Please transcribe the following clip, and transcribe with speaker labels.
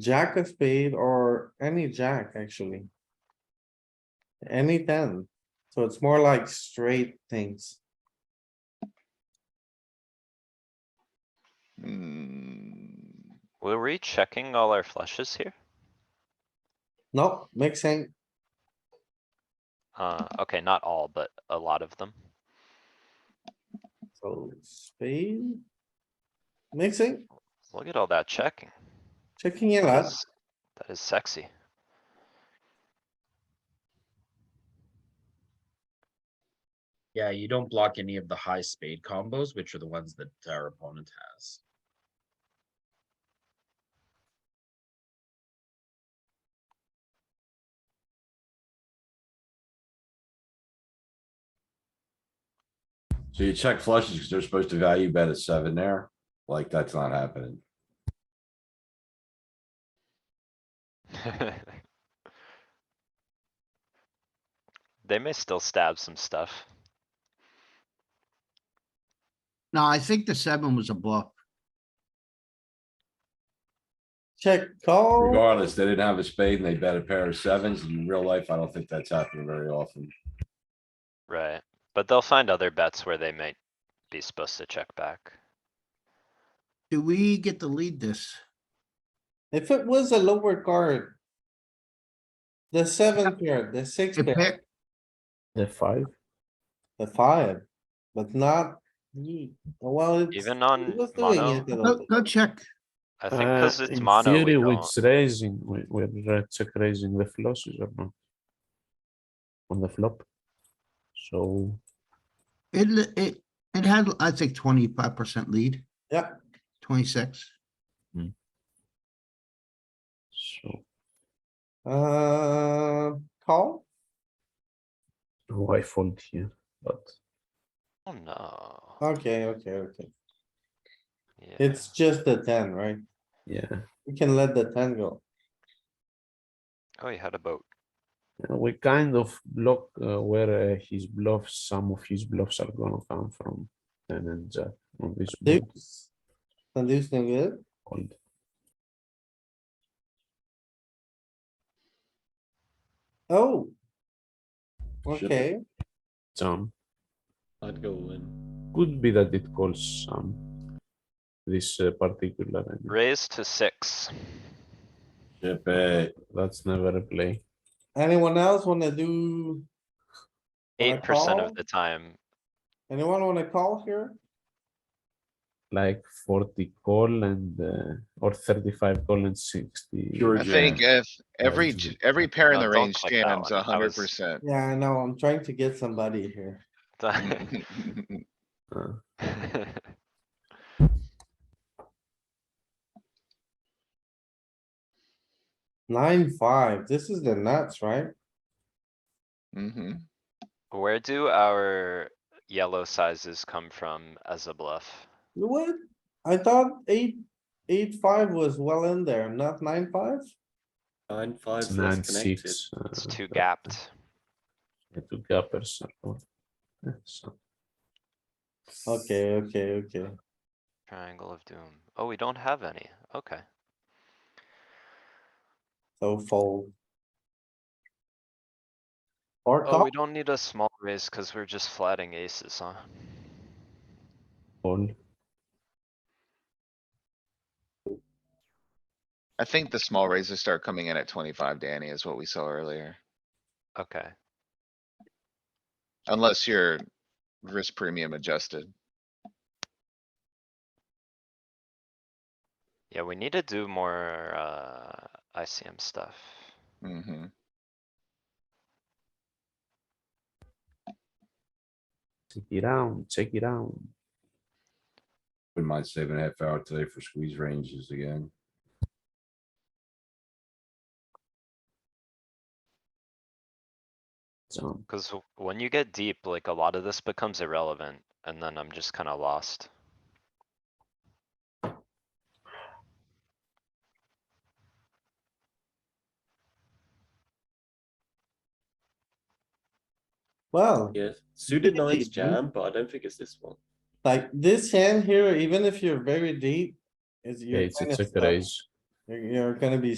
Speaker 1: Jack of spade or any jack, actually. Any ten, so it's more like straight things.
Speaker 2: Hmm,
Speaker 3: Were we checking all our flushes here?
Speaker 1: No, mixing,
Speaker 3: Uh, okay, not all, but a lot of them.
Speaker 1: so spade. Mixing,
Speaker 3: Look at all that checking.
Speaker 1: checking it out,
Speaker 3: That is- that is sexy.
Speaker 4: Yeah, you don't block any of the high spade combos, which are the ones that our opponent has.
Speaker 5: So you check flushes because they're supposed to value bet a seven there. Like, that's not happening.
Speaker 3: They may still stab some stuff.
Speaker 6: No, I think the seven was a bluff.
Speaker 1: check call,
Speaker 5: Regardless, they didn't have a spade and they bet a pair of sevens. In real life, I don't think that's happening very often.
Speaker 3: Right, but they'll find other bets where they might be supposed to check back.
Speaker 6: Do we get to lead this?
Speaker 1: if it was a lower card. The seven pair, the six
Speaker 6: It
Speaker 1: pair,
Speaker 6: pair-
Speaker 7: The five,
Speaker 1: the five, but not. the- Well, it's.
Speaker 3: Even
Speaker 1: it
Speaker 3: on
Speaker 1: was doing
Speaker 3: mono,
Speaker 1: it a little
Speaker 6: Go,
Speaker 1: bit.
Speaker 6: go check.
Speaker 3: I think
Speaker 7: uh,
Speaker 3: cuz it's
Speaker 7: in
Speaker 3: mono, we
Speaker 7: theory,
Speaker 3: don't.
Speaker 7: it's raising, we, we're uh, check raising the flushes or not? On the flop, so
Speaker 6: It, li- it, it had, I think, twenty-five percent lead,
Speaker 1: Yeah,
Speaker 6: twenty-six.
Speaker 7: so
Speaker 1: uh, call,
Speaker 7: why fold here? But
Speaker 3: Oh,
Speaker 7: Uh,
Speaker 3: no.
Speaker 1: okay, okay, okay.
Speaker 3: Yeah.
Speaker 1: It's just the ten, right?
Speaker 7: yeah,
Speaker 1: We can let the ten go.
Speaker 3: Oh, he had a boat.
Speaker 7: uh, we kind of block uh, where uh, his bluffs, some of his bluffs are gonna come from. And then jack on this board
Speaker 1: Deuce. The deuce no good.
Speaker 7: called.
Speaker 1: Oh.
Speaker 5: Should be.
Speaker 1: Okay,
Speaker 7: some.
Speaker 2: I'd go in.
Speaker 7: Could be that it calls some. This uh, particular, I mean,
Speaker 3: Raise to six.
Speaker 5: Chip it.
Speaker 7: that's never a play.
Speaker 1: anyone else wanna do, Wanna
Speaker 3: Eight percent
Speaker 1: call?
Speaker 3: of the time,
Speaker 1: anyone wanna call here?
Speaker 7: like forty call and, uh, or thirty-five call and sixty.
Speaker 5: Pure
Speaker 2: I think
Speaker 5: jam.
Speaker 2: if every,
Speaker 7: it's-
Speaker 2: j- every pair in
Speaker 3: No,
Speaker 2: the
Speaker 3: don't
Speaker 2: range
Speaker 3: click that
Speaker 2: jams
Speaker 3: one. That
Speaker 2: a hundred
Speaker 3: was-
Speaker 2: percent.
Speaker 1: Yeah, I know, I'm trying to get somebody here.
Speaker 7: Uh,
Speaker 1: Nine, five, this is the nuts, right?
Speaker 2: Mm-hmm.
Speaker 3: Where do our yellow sizes come from as a bluff?
Speaker 1: What? I thought eight, eight, five was well in there, not nine, five?
Speaker 8: Nine five
Speaker 7: it's
Speaker 8: less
Speaker 7: nine,
Speaker 8: connected.
Speaker 7: six.
Speaker 3: It's
Speaker 7: uh,
Speaker 3: too
Speaker 7: that-
Speaker 3: gapped.
Speaker 7: yeah, Two gappers. are all- yeah, so-
Speaker 1: Okay, okay, okay.
Speaker 3: Triangle of doom. Oh, we don't have any. Okay.
Speaker 1: So fold. Or
Speaker 3: Oh,
Speaker 1: call,
Speaker 3: we don't need a small raise cuz we're just flatting aces, huh?
Speaker 7: All,
Speaker 2: I think the small raises start coming in at twenty-five, Danny, is what we saw earlier.
Speaker 3: Okay,
Speaker 2: Unless you're risk premium adjusted.
Speaker 3: yeah, we need to do more, uh, ICM stuff.
Speaker 2: Mm-hmm.
Speaker 7: check it out, check it out.
Speaker 5: Wouldn't mind saving a half hour today for squeeze ranges again.
Speaker 7: Jump.
Speaker 3: Cuz w- when you get deep, like a lot of this becomes irrelevant and then I'm just kinda lost.
Speaker 1: well,
Speaker 8: Yes, suited nines jam, but I don't think it's this one.
Speaker 1: like this hand here, even if you're very deep, is
Speaker 7: Yeah,
Speaker 1: you're
Speaker 7: it's a
Speaker 1: kind of
Speaker 7: check
Speaker 1: stuck.
Speaker 7: raise.
Speaker 1: You're, you're gonna be